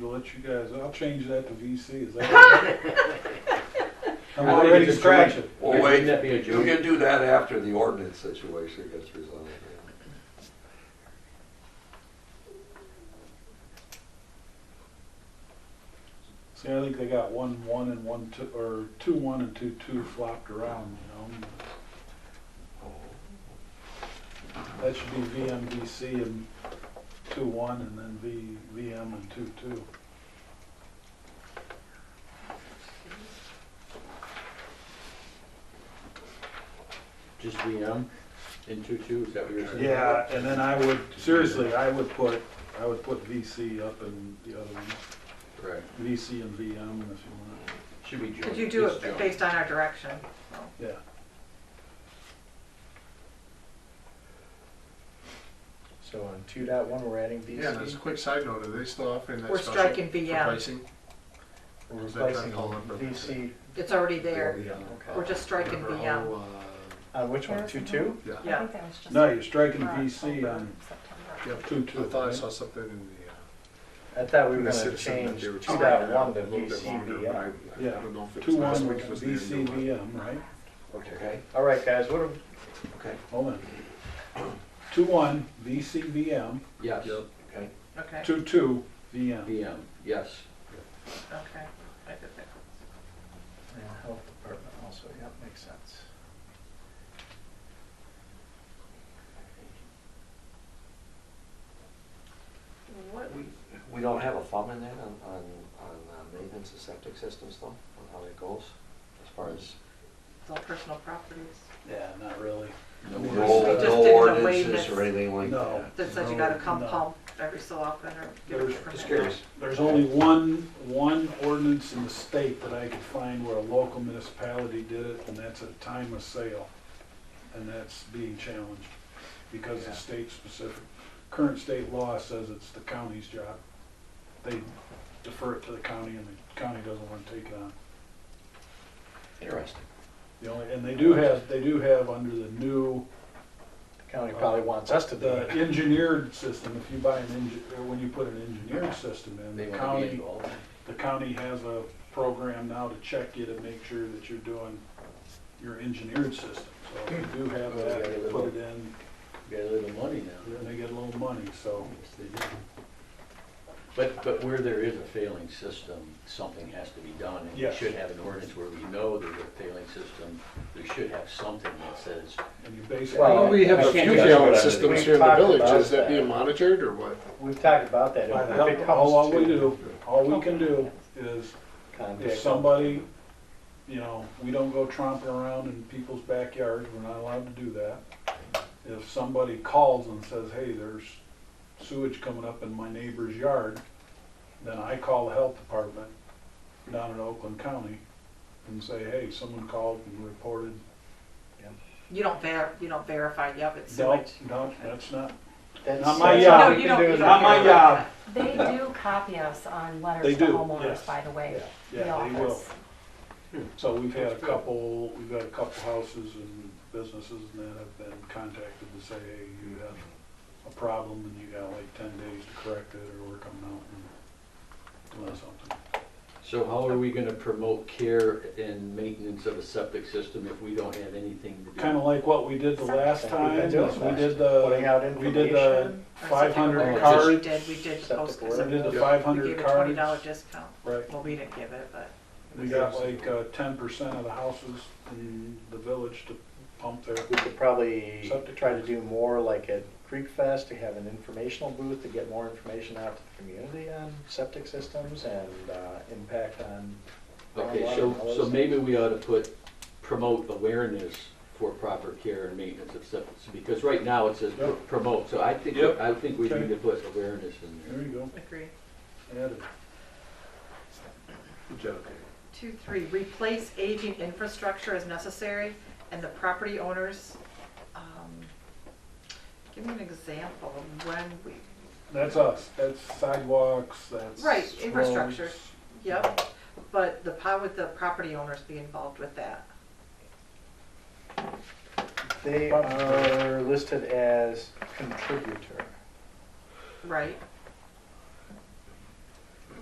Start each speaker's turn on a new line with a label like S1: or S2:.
S1: to let you guys, I'll change that to VC, is that? all right? I'm already scratching.
S2: Well,
S3: Wouldn't
S2: wait,
S3: that be a
S2: you
S3: joke?
S2: can do that after the ordinance situation gets resolved.
S1: See, I think they got one, one and one, two, or two, one and two, two flopped around, you know? That should be VMDC and two, one, and then V, VM and two, two.
S3: Just VM in two two, is that what you're saying?
S1: Yeah, and then I would, seriously, I would put, I would put VC up in the other one,
S3: Right.
S1: VC and VM if you want,
S3: Should be joint.
S4: Could you do
S3: It's
S4: it
S3: joint.
S4: based on our direction?
S1: yeah.
S5: So on two dot one, we're adding
S6: Yeah, and as a
S5: VC,
S6: quick side note, are they still offering that
S4: We're
S6: special
S4: striking
S6: for
S4: VM.
S6: pricing?
S5: we're
S6: Is that trying to
S5: replacing
S6: call it for-
S5: VC,
S4: It's already there.
S6: Yeah. uh,
S4: We're just striking
S6: Remember,
S4: VM.
S6: oh,
S5: on which one, two two?
S6: uh, Yeah,
S4: Yeah.
S1: No, you're striking VC on
S6: Yep.
S1: two,
S6: I
S1: two.
S6: thought I saw something in the,
S5: I thought we
S6: uh,
S5: were
S6: in the
S5: gonna
S6: citizen that
S5: change
S6: they were
S5: two
S6: trying
S5: dot
S6: to
S5: one
S6: out
S5: to
S6: a little bit
S5: VC,
S6: longer, but I
S5: VM.
S6: I
S1: Yeah.
S6: don't know if it
S1: Two,
S6: was last
S1: one,
S6: week, it was the end of the
S1: VC,
S6: month.
S1: VM, right?
S3: Okay,
S5: All right, guys, what, am-
S3: okay,
S1: Hold on. Two, one, VC, VM,
S3: yes,
S6: Yep.
S3: okay,
S4: Okay,
S1: two, two, VM.
S3: VM, yes.
S4: okay. I did that.
S5: and health department also, yep, makes sense.
S4: What,
S3: We, we don't have a thumb in there on, on, on uh, maintenance of septic systems though, on how that goes, as far as
S4: it's all personal properties.
S1: Yeah, not really.
S3: no
S1: We
S3: no
S1: just
S4: did an
S3: ordinances
S4: awareness.
S3: or anything like
S1: No.
S3: that.
S4: That says you gotta come
S1: No.
S4: pump every so often or give
S1: There's-
S4: a permit.
S3: Just curious,
S1: There's only one, one ordinance in the state that I could find where a local municipality did it, and that's at time of sale. And that's being challenged because
S3: Yeah.
S1: it's state specific. Current state law says it's the county's job. They defer it to the county and the county doesn't want to take it on.
S3: interesting.
S1: The only, and they do have, they do have under the new,
S5: The county probably wants us to do
S1: the
S5: it.
S1: engineered system, if you buy an engi, or when you put an engineered system in,
S3: They
S1: the
S3: want to be
S1: county,
S3: involved.
S1: the county has a program now to check you to make sure that you're doing your engineered system. So if you do have that, they put it in,
S3: Got a little money now.
S1: then they get a little money, so.
S3: Yes, they do. But, but where there is a failing system, something has to be done. And we
S1: Yes.
S3: should have an ordinance where we know there's a failing system. We should have something that says,
S1: And you basically.
S5: Well,
S6: Well, we have
S5: I
S6: a
S5: can't
S6: few
S5: judge what
S6: gallon
S5: I-
S6: systems
S5: we've
S6: here in the
S5: talked
S6: village,
S5: about
S6: is that
S5: that.
S6: being monitored or what?
S5: We've talked about that,
S1: By
S5: if it
S1: the- All all
S5: comes
S1: we
S5: to
S1: do, all we can do is If
S5: contact,
S1: somebody, you know, we don't go tromping around in people's backyards, we're not allowed to do that. If somebody calls and says, hey, there's sewage coming up in my neighbor's yard, then I call the health department down in Oakland County and say, hey, someone called and reported.
S4: You don't ver, you don't verify, yep, it's
S1: No,
S4: sewage.
S1: no, that's not,
S5: that's
S1: Not my
S5: that's
S1: job.
S5: all
S4: No,
S5: we
S4: you
S5: can
S4: don't,
S5: do
S4: you
S5: is
S4: don't.
S1: Not my
S4: verify
S1: job.
S4: that.
S7: They do copy us on
S1: They
S7: letters to
S1: do, yes.
S7: homeowners, by the way,
S1: Yeah,
S7: the
S1: they will.
S7: office.
S1: so we've had a couple, we've had a couple houses and businesses and that have been contacted to say, hey, you have a problem and you got like ten days to correct it or we're coming out and doing something.
S3: so how are we gonna promote care and maintenance of a septic system if we don't have anything to do?
S1: Kind of like what we did the last time, is we did
S5: Putting
S1: the,
S5: out
S1: we did the
S5: information,
S4: Or
S1: five hundred
S4: something.
S3: card-
S4: We
S1: cards,
S4: did, we did
S5: Septic
S4: post,
S5: board.
S1: we did
S4: we
S1: the
S6: Yeah.
S1: five
S4: gave
S1: hundred
S4: a twenty dollar
S1: cards.
S4: discount.
S1: Right,
S4: Well, we didn't give it, but
S1: we got like uh, ten percent of the houses in the village to pump their,
S5: we could probably
S1: Septic.
S5: try to do more like at Creek Fest, to have an informational booth to get more information out to the community on septic systems and, uh, impact on
S3: Okay, so, so maybe we ought to put, promote awareness for proper care and maintenance of septic, because right now it says
S1: Yep.
S3: promote, so I think,
S1: Yep.
S3: I think we
S1: Okay.
S3: need to put awareness in there.
S1: there you go,
S4: agree.
S1: added.
S6: Good job.
S4: Two, three, replace aging infrastructure as necessary, and the property owners, um, give me an example of when we,
S1: That's us, that's sidewalks, that's.
S4: Right, infrastructure.
S1: roads.
S4: yep, but the, how would the property owners be involved with that?
S5: They are listed as contributor.
S4: Right,